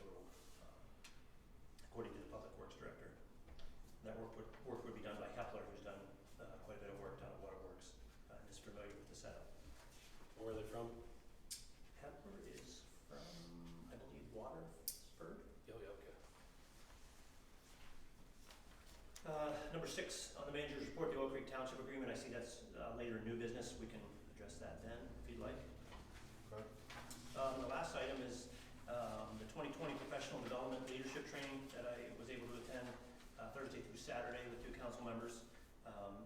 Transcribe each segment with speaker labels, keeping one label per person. Speaker 1: um, according to the Public Works Director. That work would, work would be done by Hepler, who's done uh, quite a bit of work down at Waterworks, uh, and is familiar with the setup.
Speaker 2: Where are they from?
Speaker 1: Hepler is from, I believe, Waterford?
Speaker 2: Yo, yo, Oh, okay.
Speaker 1: Uh, Number six, on the manager's report, the Oak Creek Township Agreement, I see that's uh, later in new business, we can address that then, if you'd like.
Speaker 2: Okay.
Speaker 1: Um, The last item is um, the 2020 Professional Development Leadership Training that I was able to attend uh, Thursday through Saturday with two council members. Um,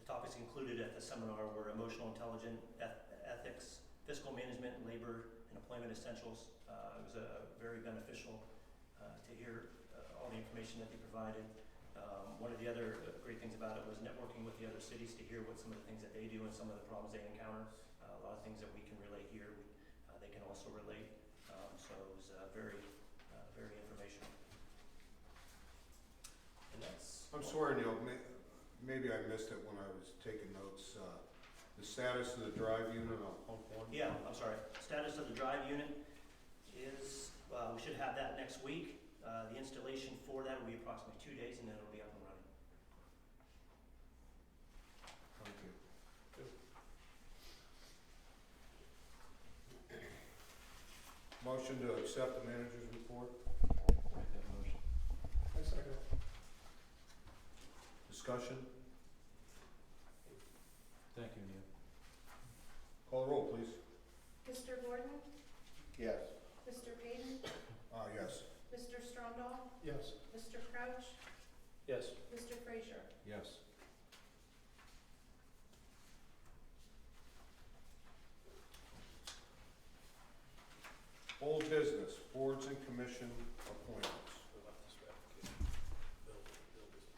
Speaker 1: The topics included at the seminar were emotional intelligence, eth- ethics, fiscal management, and labor and employment essentials. Uh, It was uh, very beneficial uh, to hear uh, all the information that they provided. Um, One of the other uh, great things about it was networking with the other cities to hear what some of the things that they do and some of the problems they encounter. Uh, A lot of things that we can relate here, uh, they can also relate. Um, So it was uh, very, uh, very informational. And that's.
Speaker 3: I'm sorry, Neil, may, maybe I missed it when I was taking notes, uh, the status of the drive unit on pump one?
Speaker 1: Yeah, I'm sorry. Status of the drive unit is, uh, we should have that next week. Uh, The installation for that will be approximately two days, and then it'll be up and running.
Speaker 3: Thank you. Motion to accept the manager's report,
Speaker 2: Make that motion.
Speaker 4: I second.
Speaker 3: discussion,
Speaker 2: Thank you, Neil.
Speaker 3: call the roll, please.
Speaker 5: Mr. Gordon,
Speaker 3: Yes.
Speaker 5: Mr. Payton,
Speaker 3: Uh, yes.
Speaker 5: Mr. Strondahl,
Speaker 4: Yes.
Speaker 5: Mr. Crouch,
Speaker 2: Yes.
Speaker 5: Mr. Frazier.
Speaker 3: Yes. Old business, boards and commission appointments.
Speaker 2: What about this application? Bill, Bill, this.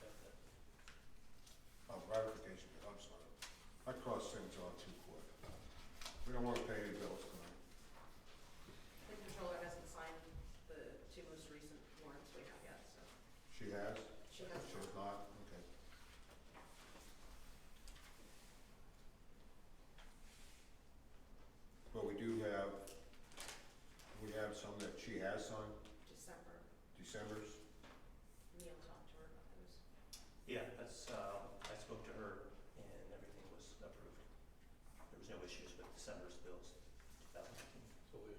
Speaker 2: Got that.
Speaker 3: Oh, ratification, bill, I'm sorry. I cross things off too quick. We don't want to pay any bills tonight.
Speaker 6: The controller hasn't signed the two most recent warrants we have yet, so
Speaker 3: She has?
Speaker 6: she has.
Speaker 3: She has not? Okay. But we do have, we have some that she has signed,
Speaker 6: December,
Speaker 3: December's.
Speaker 6: Neil talked to her about those.
Speaker 1: Yeah, that's, uh, I spoke to her, and everything was approved. There was no issues with December's bills. That was-
Speaker 2: So we,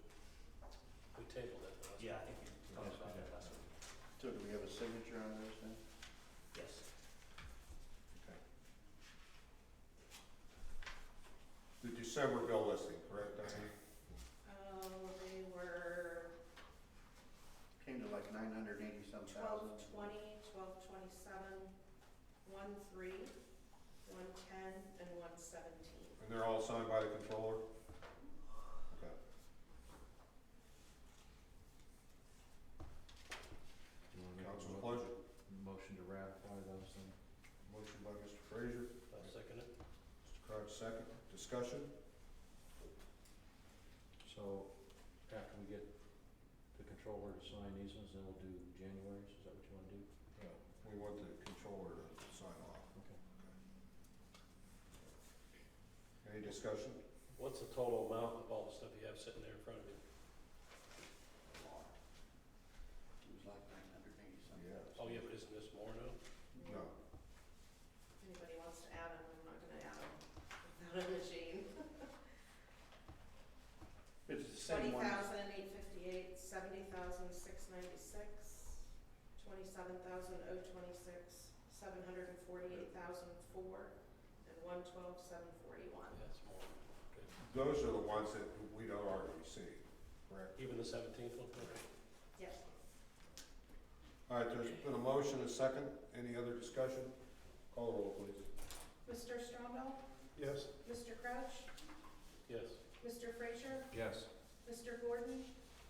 Speaker 2: we tabled that last.
Speaker 1: Yeah, I think we talked about that last week.
Speaker 7: So do we have a signature on this then?
Speaker 1: Yes.
Speaker 3: Okay. The December bill listing, correct, Diane?
Speaker 6: Oh, they were
Speaker 7: Came to like nine hundred eighty some thousand.
Speaker 6: twelve twenty, twelve twenty-seven, one three, one ten, and one seventeen.
Speaker 3: And they're all signed by the controller? Okay.
Speaker 8: Do you want to make a
Speaker 3: Council's
Speaker 8: mo-
Speaker 3: pleasure.
Speaker 8: motion to ratify those then?
Speaker 3: Motion by Mr. Frazier,
Speaker 2: I'll second it.
Speaker 3: Mr. Crouch second. Discussion?
Speaker 8: So after we get the controller to sign these ones, then we'll do January's, is that what you want to do?
Speaker 3: We want the controller to sign off.
Speaker 8: Okay.
Speaker 3: Any discussion?
Speaker 2: What's the total amount of all the stuff you have sitting there in front of you?
Speaker 7: It was like nine hundred eighty some.
Speaker 3: Yeah.
Speaker 2: Oh, yeah, but isn't this more now?
Speaker 3: No.
Speaker 6: If anybody wants to add them, I'm not gonna add them without a machine.
Speaker 7: It's the
Speaker 6: Twenty
Speaker 7: same one.
Speaker 6: thousand eight fifty-eight, seventy thousand six ninety-six, twenty-seven thousand oh twenty-six, seven hundred and forty-eight thousand four, and one twelve seven forty-one.
Speaker 2: Yeah, it's more.
Speaker 3: Those are the ones that we don't already see, correct?
Speaker 2: Even the seventeenth one?
Speaker 6: Yes.
Speaker 3: All right, there's been a motion, a second. Any other discussion? Call the roll, please.
Speaker 6: Mr. Strongbow,
Speaker 4: Yes.
Speaker 6: Mr. Crouch,
Speaker 2: Yes.
Speaker 6: Mr. Frazier,
Speaker 8: Yes.
Speaker 6: Mr. Gordon,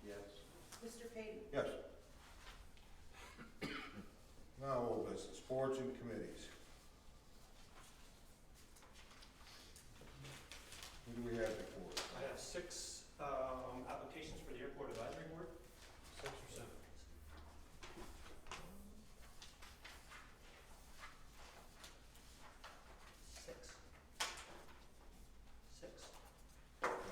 Speaker 7: Yes.
Speaker 6: Mr. Payton.
Speaker 3: Yes. Now, old business, boards and committees. Who do we have here?